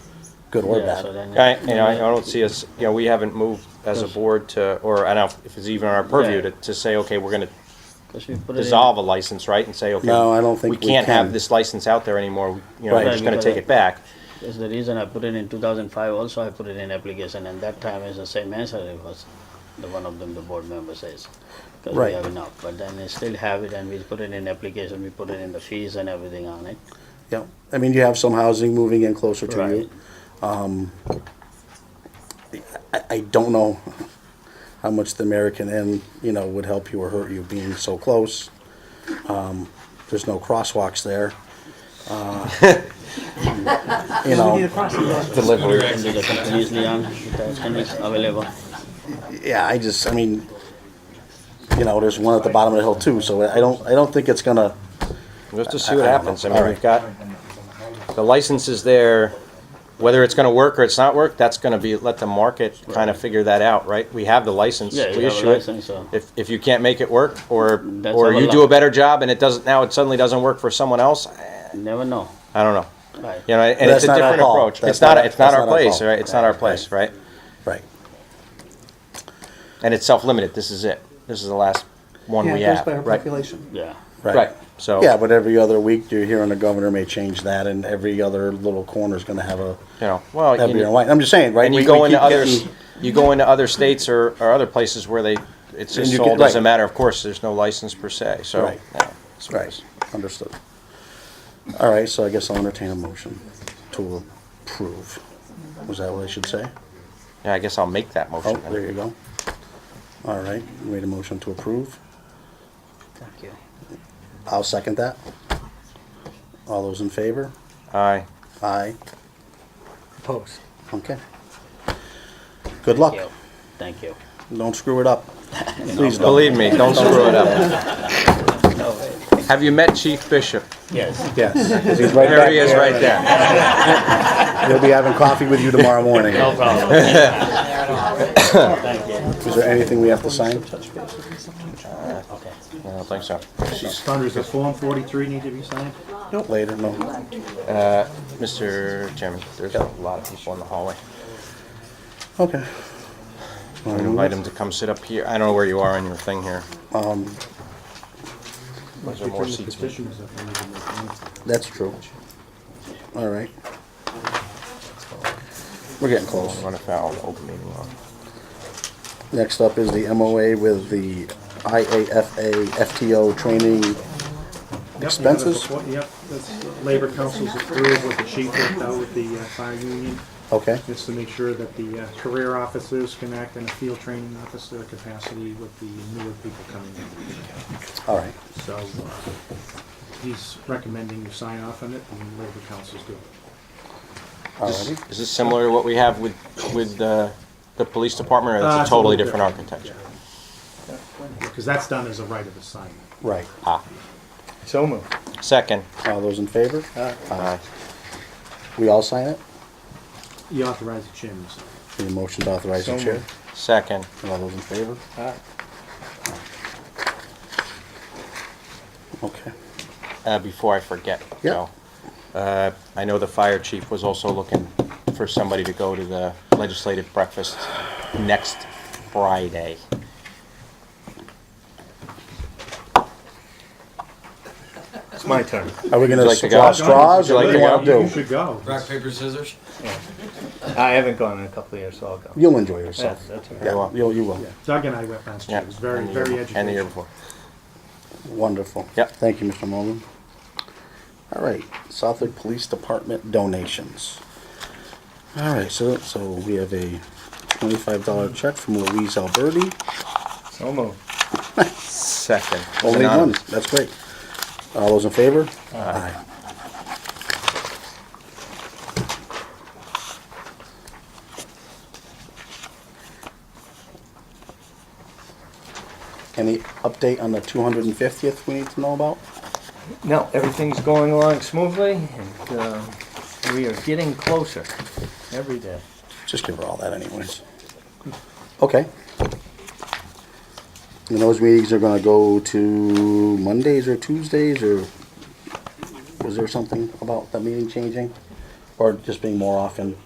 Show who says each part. Speaker 1: good or
Speaker 2: Yeah, so
Speaker 1: bad.
Speaker 2: then-
Speaker 3: I, you know, I I don't see us, you know, we haven't moved as a board to, or I don't know if it's even our purview to, to say, okay, we're gonna
Speaker 2: Because we put it in-
Speaker 3: dissolve a license, right, and say, okay.
Speaker 1: No, I don't think we
Speaker 3: can't
Speaker 1: can.
Speaker 3: have this license out there anymore, you know,
Speaker 1: Right.
Speaker 3: we're just gonna take it back.
Speaker 2: That's the reason I put it in two thousand five also, I put it in application, and that time is the same answer it was, the one of them, the board member says. Because we
Speaker 1: Right.
Speaker 2: have enough, but then they still have it, and we put it in application, we put it in the fees and everything on it.
Speaker 1: Yeah, I mean, you have some housing moving in closer to
Speaker 2: Right.
Speaker 1: you. I, I don't know how much the American Inn, you know, would help you or hurt you being so close. Um, there's no crosswalks there. Uh, You know,
Speaker 3: Delivery.
Speaker 2: And the companies, Leon, the companies available.
Speaker 1: yeah, I just, I mean, you know, there's one at the bottom of the hill too, so I don't, I don't think it's gonna,
Speaker 3: Just to see
Speaker 1: I don't
Speaker 3: what
Speaker 1: know.
Speaker 3: happens, I mean,
Speaker 1: All right.
Speaker 3: we've got, the license is there, whether it's gonna work or it's not work, that's gonna be, let the market kinda figure that out, right? We have the license,
Speaker 2: Yeah, you
Speaker 3: we
Speaker 2: have a
Speaker 3: issue it.
Speaker 2: license, so.
Speaker 3: If, if you can't make it work, or,
Speaker 2: That's
Speaker 3: or
Speaker 2: our
Speaker 3: you do
Speaker 2: li-
Speaker 3: a better job and it doesn't, now it suddenly doesn't work for someone else, eh,
Speaker 2: Never know,
Speaker 3: I don't know.
Speaker 2: right?
Speaker 3: You know, and
Speaker 1: That's
Speaker 3: it's a
Speaker 1: not our
Speaker 3: different
Speaker 1: call.
Speaker 3: approach.
Speaker 1: That's
Speaker 3: It's not,
Speaker 1: not-
Speaker 3: it's not
Speaker 1: that's
Speaker 3: our
Speaker 1: not our
Speaker 3: place,
Speaker 1: call.
Speaker 3: right? It's not our place, right?
Speaker 1: right.
Speaker 3: And it's self-limited, this is it. This is the last one
Speaker 4: Yeah,
Speaker 3: we
Speaker 4: it goes
Speaker 3: have,
Speaker 4: by our
Speaker 3: right?
Speaker 4: population.
Speaker 2: Yeah,
Speaker 3: Right, so,
Speaker 1: Yeah,
Speaker 3: you
Speaker 1: but every other week, you're hearing the governor may change that, and every other little corner's gonna have a,
Speaker 3: know, well.
Speaker 1: have
Speaker 3: you
Speaker 1: your
Speaker 3: know,
Speaker 1: light. I'm just saying, right?
Speaker 3: And
Speaker 1: we-
Speaker 3: you go
Speaker 1: we
Speaker 3: into
Speaker 1: keep
Speaker 3: others,
Speaker 1: getting-
Speaker 3: you go into other states or, or other places where they, it's
Speaker 1: And
Speaker 3: just
Speaker 1: you get-
Speaker 3: sold as a
Speaker 1: right.
Speaker 3: matter of course, there's no license per se, so.
Speaker 1: Right.
Speaker 3: yeah, that's what it
Speaker 1: Right,
Speaker 3: is.
Speaker 1: understood. All right, so I guess I'll entertain a motion to approve. Was that what I should say?
Speaker 3: Yeah, I guess I'll make that
Speaker 1: Oh,
Speaker 3: motion. then.
Speaker 1: there you go. All right, you made a motion to approve.
Speaker 2: thank you.
Speaker 1: I'll second that. All those in favor?
Speaker 3: Aye,
Speaker 1: Aye.
Speaker 4: Opposed.
Speaker 1: Okay. Good luck.
Speaker 2: Thank you. Thank you.
Speaker 1: Don't screw it up. Please don't.
Speaker 3: believe me, don't screw it up. Have you met Chief Bishop?
Speaker 2: Yes,
Speaker 1: Yes, 'cause he's right
Speaker 3: There
Speaker 1: back
Speaker 3: he is,
Speaker 1: there.
Speaker 3: right there.
Speaker 1: He'll be having coffee with you tomorrow morning.
Speaker 2: no problem, thank you.
Speaker 1: Is there anything we have to sign?
Speaker 2: Okay.
Speaker 3: I don't think so.
Speaker 5: Thunder, does Form 43 need to be signed?
Speaker 1: Later, no.
Speaker 3: Mr. Chairman, there's a lot of people in the hallway.
Speaker 1: Okay.
Speaker 3: I would invite him to come sit up here. I don't know where you are on your thing here. Was there more seats?
Speaker 5: Petitions that we need to make.
Speaker 1: That's true. All right. We're getting close.
Speaker 3: Run afoul of open meeting law.
Speaker 1: Next up is the MOA with the IAFA FTO training.
Speaker 5: Yep, you have it
Speaker 1: Expenses?
Speaker 5: before- Yep, that's, Labor Council's approved with the chief worked out with the uh, fire union.
Speaker 1: Okay,
Speaker 5: It's to make sure that the uh, career officers can act in a field training officer capacity with the newer people coming in.
Speaker 1: all right.
Speaker 5: So uh, he's recommending you sign off on it, and Labor Council's doing it.
Speaker 1: All righty.
Speaker 3: Is this similar to what we have with, with the, the police department, or
Speaker 5: Uh,
Speaker 3: that's
Speaker 5: it's
Speaker 3: a
Speaker 5: a
Speaker 3: totally
Speaker 5: little
Speaker 3: different
Speaker 5: different,
Speaker 3: architecture?
Speaker 5: Because that's done as a right of assignment.
Speaker 1: Right.
Speaker 3: Ah,
Speaker 6: So moved.
Speaker 3: second. Uh,
Speaker 1: All those in favor?
Speaker 3: Aye.
Speaker 1: We all sign it?
Speaker 5: You authorize the chairman. to sign it.
Speaker 1: Need a motion to authorize the
Speaker 6: So
Speaker 1: chair?
Speaker 6: moved.
Speaker 3: Second.
Speaker 1: All those in favor?
Speaker 6: Aye.
Speaker 1: Okay.
Speaker 3: Uh, before I forget,
Speaker 1: Yeah.
Speaker 3: Joe, uh, I know the fire chief was also looking for somebody to go to the legislative breakfast next Friday.
Speaker 6: It's my turn.
Speaker 1: Are we gonna
Speaker 3: like to go?
Speaker 1: draw straws or
Speaker 3: Would
Speaker 1: what
Speaker 3: you
Speaker 1: do you
Speaker 3: like
Speaker 1: wanna
Speaker 3: to
Speaker 5: You
Speaker 1: do?
Speaker 5: should go.
Speaker 7: Rock, paper, scissors?
Speaker 6: I haven't gone in a couple of years, so I'll go.
Speaker 1: You'll enjoy yourself.
Speaker 6: That's, that's all right.
Speaker 1: Yeah, you'll, you will.
Speaker 5: Yeah, Doug and I went last year.
Speaker 3: Yeah,
Speaker 5: It was very,
Speaker 3: and the year
Speaker 5: very
Speaker 3: before- And the year
Speaker 5: educational.
Speaker 3: before.
Speaker 1: Wonderful.
Speaker 3: Yep.
Speaker 1: Thank you, Mr. Mogul. All right, Southwick Police Department donations. All right, so, so we have a twenty-five dollar check from Louise Alberti.
Speaker 6: So moved.
Speaker 3: Second.
Speaker 1: Only one,
Speaker 3: Anonymous.
Speaker 1: that's great. All those in favor?
Speaker 3: Aye.
Speaker 1: Any update on the two hundred and fiftieth we need to know about?
Speaker 6: No, everything's going along smoothly, and uh, we are getting closer every day.
Speaker 1: Just give her all that anyways. Okay. And those meetings are gonna go to Mondays or Tuesdays, or was there something about that meeting changing? Or just being more often?